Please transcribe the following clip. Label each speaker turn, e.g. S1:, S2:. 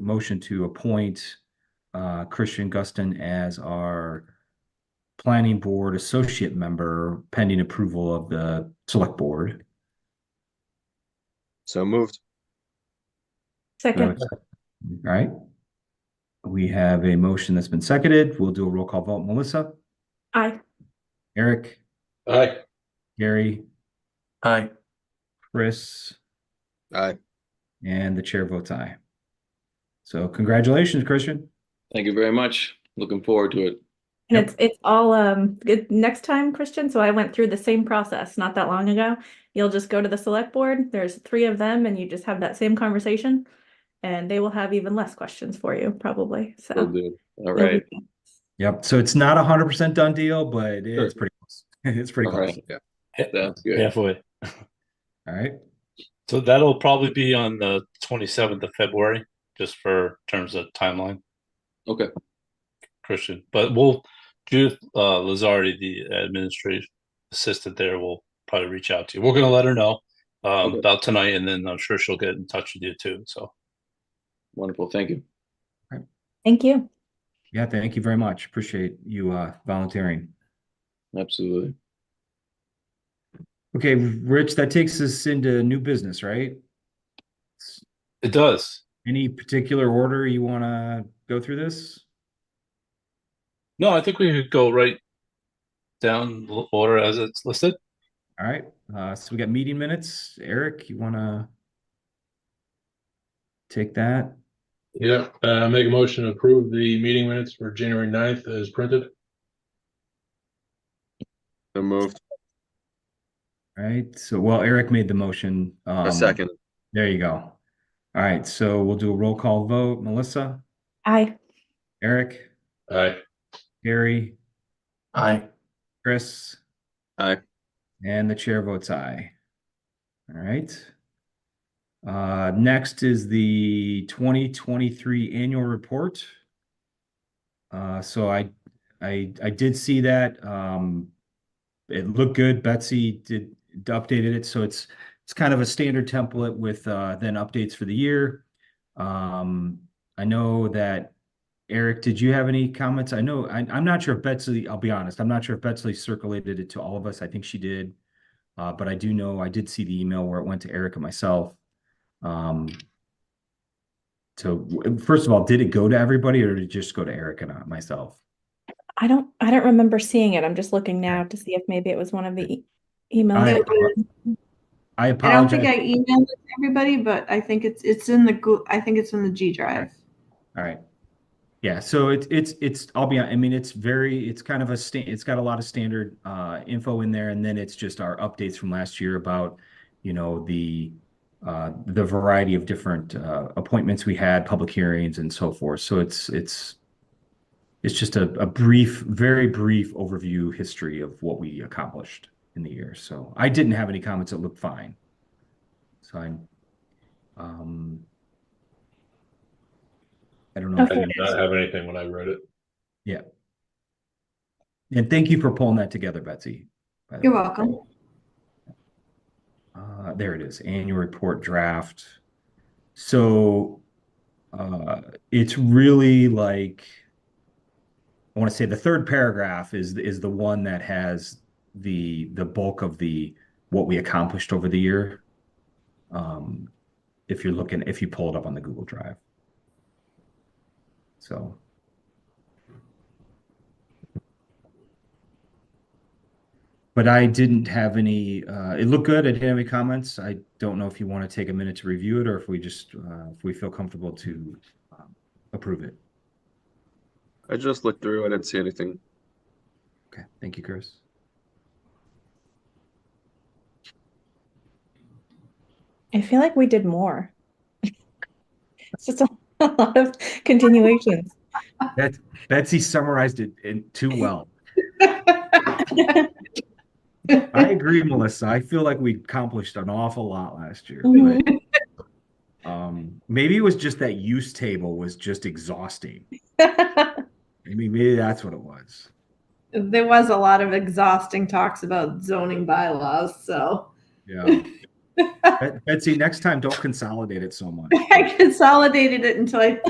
S1: motion to appoint uh, Christian Guston as our planning board associate member pending approval of the select board.
S2: So moved.
S3: Second,
S1: All right. We have a motion that's been seconded. We'll do a roll call vote. Melissa,
S3: aye.
S1: Eric,
S4: Aye.
S1: Gary,
S5: Aye.
S1: Chris,
S2: Aye.
S1: and the chair votes aye. So congratulations, Christian.
S4: Thank you very much. Looking forward to it.
S3: And
S1: Yep.
S3: it's, it's all, um, good, next time, Christian, so I went through the same process not that long ago. You'll just go to the select board, there's three of them, and you just have that same conversation. And they will have even less questions for you, probably, so.
S4: Will do. All
S3: it'll be
S4: right.
S3: good.
S1: Yep. So it's not a hundred percent done deal, but it's pretty close. It's pretty
S4: All
S1: close.
S4: right.
S2: Yeah.
S4: Sounds good.
S5: Halfway.
S1: All right.
S5: So that'll probably be on the twenty-seventh of February, just for terms of timeline.
S4: Okay.
S5: Christian, but we'll, Judith, uh, Lazardi, the administrative assistant there will probably reach out to you. We're gonna let her know. Um,
S4: Okay.
S5: about tonight and then I'm sure she'll get in touch with you too, so.
S4: Wonderful. Thank you.
S3: Thank you.
S1: Yeah, thank you very much. Appreciate you uh volunteering.
S4: Absolutely.
S1: Okay, Rich, that takes us into new business, right?
S5: It does.
S1: Any particular order you want to go through this?
S5: No, I think we could go right down the order as it's listed.
S1: All right. Uh, so we got meeting minutes. Eric, you want to take that?
S6: Yeah, uh, make a motion to approve the meeting minutes for January 9th as printed.
S2: So moved.
S1: All right. So, well, Eric made the motion. Um,
S2: A second.
S1: There you go. All right. So we'll do a roll call vote. Melissa,
S3: Aye.
S1: Eric,
S6: Aye.
S1: Gary,
S5: Aye.
S1: Chris?
S2: Aye.
S1: And the chair votes aye. All right. Uh, next is the twenty twenty-three annual report. Uh, so I, I, I did see that, um, it looked good. Betsy did, updated it, so it's, it's kind of a standard template with, uh, then updates for the year. Um, I know that Eric, did you have any comments? I know, I, I'm not sure if Betsy, I'll be honest, I'm not sure if Betsy circulated it to all of us. I think she did. Uh, but I do know I did see the email where it went to Eric and myself. Um, so w- first of all, did it go to everybody or did it just go to Eric and I- myself?
S3: I don't, I don't remember seeing it. I'm just looking now to see if maybe it was one of the e-
S1: I- I
S3: emails.
S7: I don't think I
S1: apologize.
S7: emailed it to everybody, but I think it's, it's in the, Goo- I think it's in the G drive.
S1: All right. Yeah, so it's, it's, it's, I'll be, hon- I mean, it's very, it's kind of a sta- it's got a lot of standard, uh, info in there. And then it's just our updates from last year about, you know, the, uh, the variety of different, uh, appointments we had, public hearings and so forth. So it's, it's, it's just a, a brief, very brief overview history of what we accomplished in the year. So I didn't have any comments. It looked fine. So I'm, um, I don't know. if
S6: I
S3: Okay.
S6: did
S1: you-
S6: not have anything when I read it.
S1: And thank you for pulling that together, Betsy. by the
S7: You're
S1: way.
S7: welcome.
S1: Uh, there it is, annual report draft. So uh, it's really like, I want to say the third paragraph is is the one that has the the bulk of the what we accomplished over the year. Um, if you're looking, if you pull it up on the Google Drive. So. But I didn't have any, uh, it looked good. I didn't have any comments. I don't know if you want to take a minute to review it or if we just, uh, if we feel comfortable to um, approve it.
S2: I just looked through. I didn't see anything.
S1: Okay, thank you, Chris.
S3: I feel like we did more. It's just a lot of continuations.
S1: Bet- Betsy summarized it in too well. I agree, Melissa. I feel like we accomplished an awful lot last year. but, um, maybe it was just that use table was just exhausting. I mean, maybe that's what it was.
S7: There was a lot of exhausting talks about zoning bylaws, so
S1: Yeah. Bet- Betsy, next time, don't consolidate it so much.
S7: I consolidated it until I